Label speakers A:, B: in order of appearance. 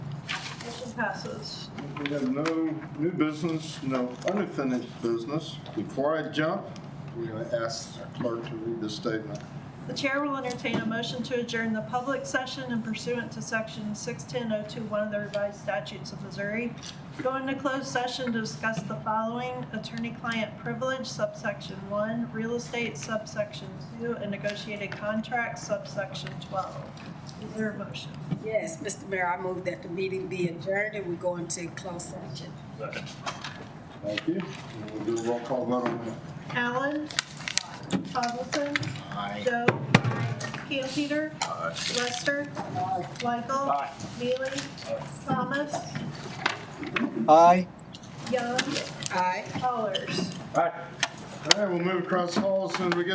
A: Motion passes.
B: We have no new business, no unfinished business. Before I jump, we're going to ask our clerk to read this statement.
A: The chair will entertain a motion to adjourn the public session and pursuant to section 610021 of the revised statutes of Missouri. Go into closed session to discuss the following: attorney-client privilege subsection 1, real estate subsection 2, and negotiated contracts subsection 12. Is there a motion?
C: Yes, Mr. Mayor, I move that the meeting be adjourned and we go into closed session.
B: Thank you. And We'll do a roll call vote on that.
A: Allen? Tomlinson? Joe? Camp Peter? Lester? Michael? Neely? Thomas?
D: Aye.
A: Young?
C: Aye.
A: Allers?
B: All right, we'll move across the hall as soon as we get